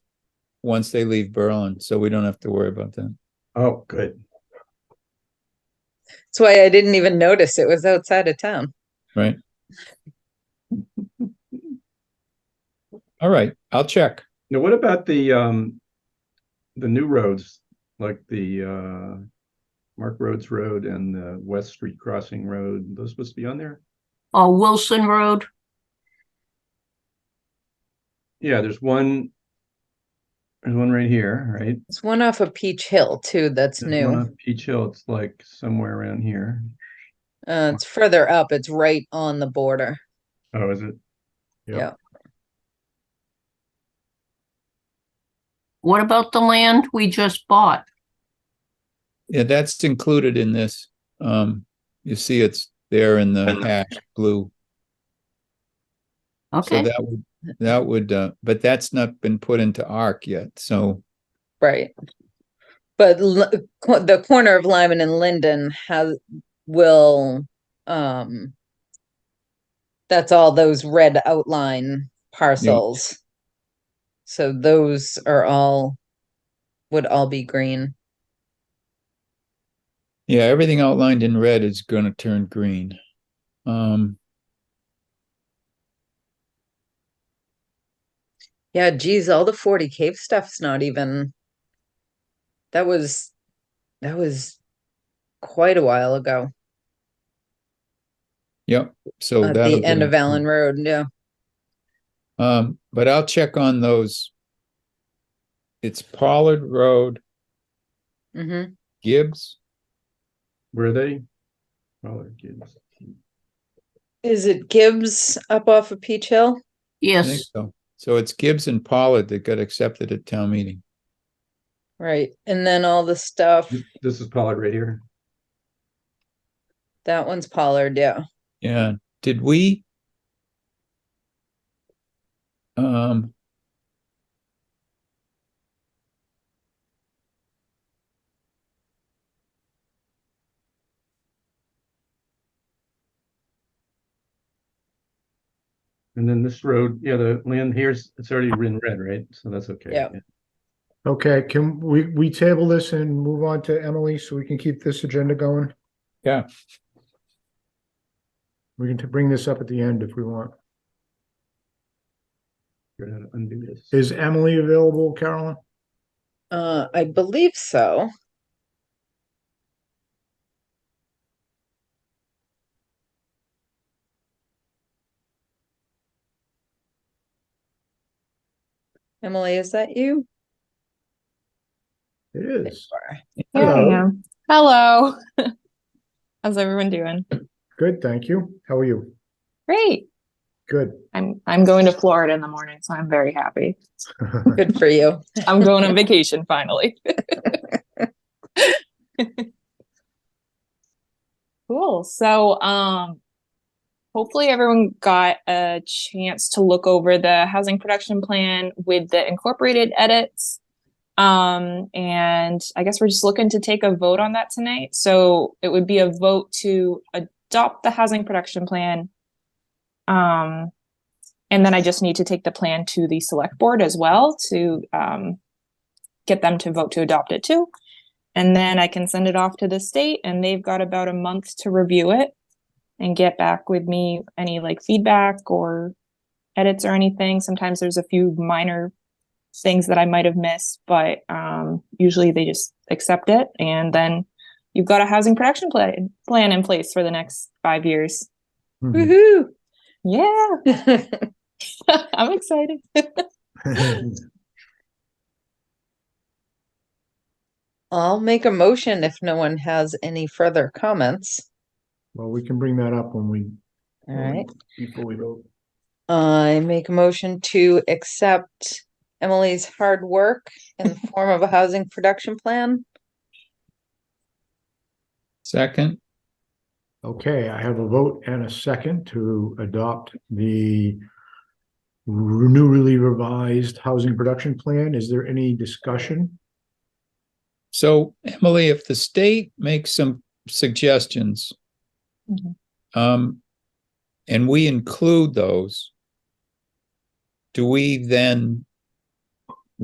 once they leave Berlin, so we don't have to worry about that. Oh, good. That's why I didn't even notice it was outside of town. All right, I'll check. Now, what about the, um, the new roads, like the, uh, Mark Rhodes Road and the West Street Crossing Road? Those supposed to be on there? Uh, Wilson Road, Yeah, there's one. There's one right here, right? It's one off of Peach Hill too, that's There's one new. on Peach Hill, it's like somewhere around here. Uh, it's further up, it's right on the border. Oh, is it? Yeah. what about the land we just bought? Yeah, that's included in this. Um, you see it's there in the hash blue. So Okay, that would, that would, uh, but that's not been put into ARC yet, so, Right. But L- co- the corner of Lyman and Linden has, will, um, that's all those red outline parcels. So those are all, would all be green. yeah, everything outlined in red is gonna turn green. Um, Yeah, geez, all the forty cave stuff's not even. That was, that was quite a while ago, yep, so. at that'll the go end of into- Allen Road, yeah. Um, but I'll check on those. It's Pollard Road, hmm Gibbs, Where are they? Oh, they're kids. Is it Gibbs up off of Peach Hill? I think yes, so. So it's Gibbs and Pollard that got accepted at town meeting. Right, and then all the stuff, This is Pollard right here. that one's Pollard, yeah. Yeah, did we? Um. And then this road, yeah, the land here's, it's already in red, right? So that's okay. Yeah. Okay, can we, we table this and move on to Emily so we can keep this agenda going? Yeah. We can t- bring this up at the end if we want. Figure out how to undo this. Is Emily available, Carolyn? Uh, I believe so. Emily, is that you? It is. There Hello. I am. Hello. How's everyone doing? Good, thank you. How are you? Great. Good. I'm I'm going to Florida in the morning, so I'm very happy. Good for you. I'm going on vacation finally. cool. So, um hopefully everyone got a chance to look over the housing production plan with the incorporated edits. Um and I guess we're just looking to take a vote on that tonight. So, it would be a vote to adopt the housing production plan. Um and then I just need to take the plan to the select board as well to um, get them to vote to adopt it too. And then I can send it off to the state and they've got about a month to review it and get back with me any like feedback or edits or anything. Sometimes there's a few minor things that I might have missed, but um, usually they just accept it. And then you've got a housing production plan, plan in place for the next five years. Mhm. Woohoo! Yeah, I'm excited. I'll make a motion if no one has any further comments. Well, we can bring that up when we. All Mm. right. Before we vote. I make a motion to accept Emily's hard work in the form of a housing production plan. Second, Okay, I have a vote and a second to adopt the re- newly revised housing production plan. Is there any discussion? so Emily, if the state makes some suggestions. Mhm. Um, and we include those. Do we then